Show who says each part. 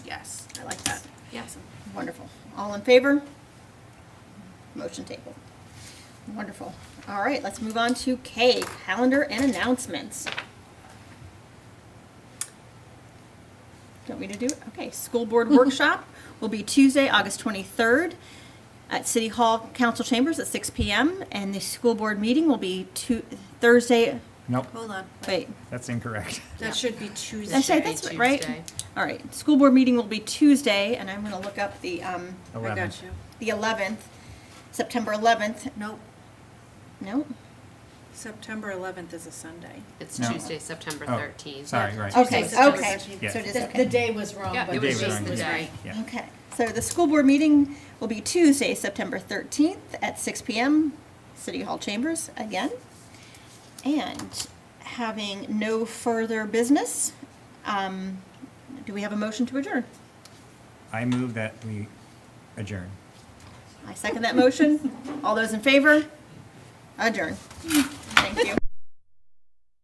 Speaker 1: Yes.
Speaker 2: Wonderful. All in favor? Motion table. Wonderful. All right, let's move on to K, calendar and announcements. Don't we to do it? Okay, school board workshop will be Tuesday, August 23rd at City Hall Council Chambers at 6 PM. And the school board meeting will be Tu- Thursday,
Speaker 3: Nope,
Speaker 1: Hold on.
Speaker 2: wait,
Speaker 3: that's incorrect.
Speaker 1: That should be Tuesday.
Speaker 2: I say that's what- right? All right, school board meeting will be Tuesday, and I'm going to look up the, um,
Speaker 1: I
Speaker 3: Eleven.
Speaker 1: got you.
Speaker 2: the 11th, September 11th.
Speaker 1: Nope.
Speaker 2: No?
Speaker 1: September 11th is a Sunday.
Speaker 4: It's
Speaker 3: No.
Speaker 4: Tuesday, September
Speaker 3: Oh,
Speaker 4: 13th.
Speaker 3: Sorry, right.
Speaker 2: Okay,
Speaker 1: Tuesday, September
Speaker 2: okay.
Speaker 1: 13th.
Speaker 2: So it is
Speaker 5: The, the
Speaker 2: okay.
Speaker 5: day was wrong,
Speaker 4: Yeah,
Speaker 5: but
Speaker 4: it
Speaker 5: the
Speaker 4: was
Speaker 3: David
Speaker 4: just
Speaker 3: Ryan
Speaker 4: the
Speaker 3: was
Speaker 4: day.
Speaker 3: right. Yeah.
Speaker 2: Okay, so the school board meeting will be Tuesday, September 13th at 6 PM, City Hall Chambers again. And having no further business, um, do we have a motion to adjourn?
Speaker 3: I move that we adjourn.
Speaker 2: I second that motion. All those in favor? Adjourn. Thank you.